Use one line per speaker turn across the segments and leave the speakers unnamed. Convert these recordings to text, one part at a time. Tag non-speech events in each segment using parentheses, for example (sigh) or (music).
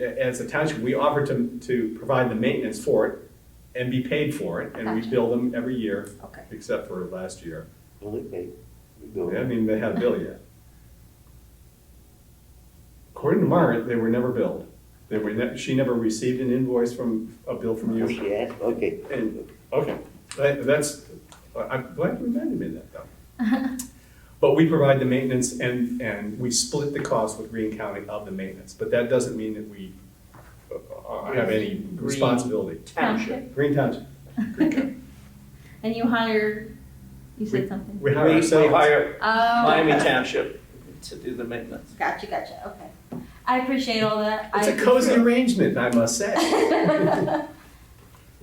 a- as a township, we offer to, to provide the maintenance for it and be paid for it, and we
Gotcha.
bill them every year,
Okay.
except for last year.
Well, they pay. We
I
bill them.
mean, they haven't billed yet. According to Margaret, they were never billed. They were, ne- she never received an invoice from, a bill from
Oh,
you.
she asked, okay.
And, okay, that, that's, I'm glad you reminded me of that, though. But we provide the maintenance and, and we split the cost with Green County of the maintenance, but that doesn't mean that we uh, have any
Green-
responsibility.
Township.
Green Township,
(laughs) And you hired, you said something?
we hire
We- We
ourselves.
hire
Oh.
Miami Township to do the maintenance.
Gotcha, gotcha, okay. I appreciate all that.
It's
I-
a cozy arrangement, I must (laughs) say.
(laughs)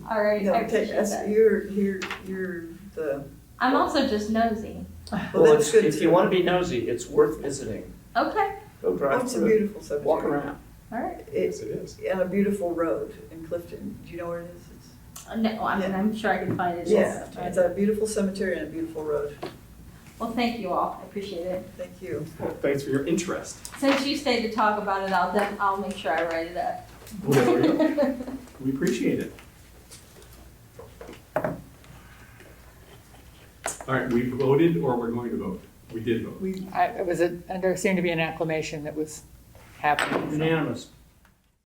All right,
No,
I
take
appreciate
us,
that.
you're, you're, you're the,
I'm also just nosy.
well,
Well,
that's
it's,
good.
if
too.
you want to be nosy, it's worth visiting.
Okay,
Go
Oh,
drive
It's a
through,
beautiful cemetery.
walk around.
all right.
It's
Yes, it is.
on a beautiful road in Clifton. Do you know where it is? It's-
Uh, No, I mean,
Yeah.
I'm sure I can find it.
Yeah,
It's-
it's a beautiful cemetery and a beautiful road.
Well, thank you all. I appreciate it.
Thank you.
Well, Thanks for your interest.
Since you stayed to talk about it, I'll, def- I'll make sure I write it up. (laughs)
We appreciate it. All right, we voted or we're going to vote? We did vote.
We,
I, it was a, and there seemed to be an acclamation that was happening. so.
Unanimous.